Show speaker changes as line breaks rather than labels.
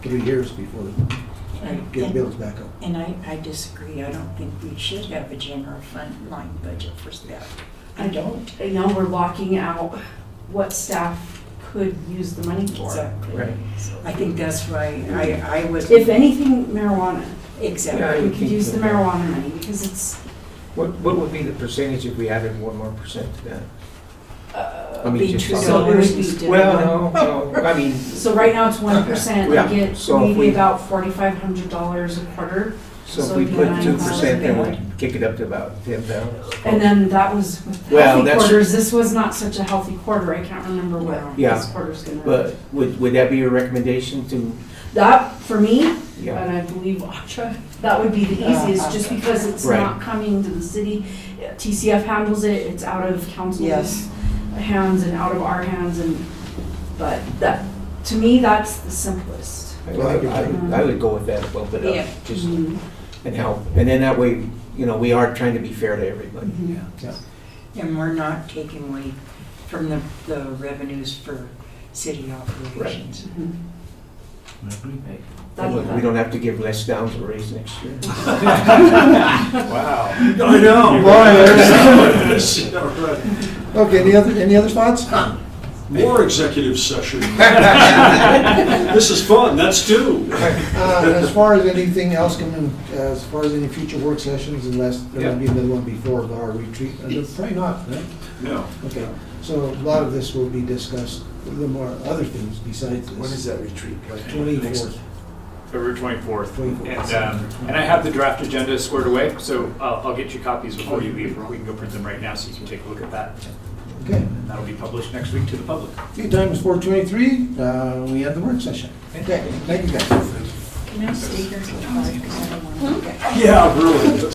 three years before we
And-
get
and-
bills back up.
And I, I disagree. I don't think we should have a general fund line budget for staff. I don't.
And now we're locking out what staff could use the money for.
Exactly.
Right.
I think that's why I, I was.
If anything, marijuana.
Yeah,
Exactly.
you
We could
can-
use the marijuana money because it's,
What, what would be the percentage if we added one more percent to that?
uh,
I mean,
Be
just-
two
So it
dollars
would be-
instead of
Well, no, no, I mean,
so right now it's one percent. We
Yeah,
get
so if
maybe
we-
about forty-five hundred dollars a quarter.
so
So
if we
it'd be
put
nine
two percent, then
thousand.
we'd kick it up to about ten thousand.
And then that was with
Well,
healthy
that's-
quarters. This was not such a healthy quarter. I can't remember what
Yeah.
this quarter's gonna.
But would, would that be your recommendation to,
That, for me,
yeah,
and I believe Acha, that would be the
Yeah,
easiest, just
Astra.
because it's
Right.
not coming to the city. TCF handles it, it's out of council's
Yes.
hands and out of our hands and, but that, to me, that's the simplest.
I would, I would- I would go with that, bump it
Yeah.
up, just,
Mm-hmm.
and help. And then that way, you know, we are trying to be fair to everybody.
Mhm.
And we're not taking away from the, the revenues for city operations.
Mhm. Mm-hmm. That-
We
that-
don't have to give Les Downs a raise next year.
Wow.
I know, Okay, any other, any other thoughts? Uh,
More executive session. This is fun, that's two.
Uh, As far as anything else coming, as far as any future work sessions, unless there will be another one before our retreat, uh, probably not, right?
No.
Okay, so a lot of this will be discussed, the more other things besides this. When is that retreat? Twenty-fourth.
February 24th.
24th.
And, um, and I have the draft agenda squared away, so I'll, I'll get you copies before you leave. We can go print them right now so you can take a look at that.
Okay,
And that'll be published next week to the public.
okay, time is four twenty-three, uh, we have the work session. Okay, thank you guys.
Can I stay here till five? 'Cause I don't wanna-
Yeah, really.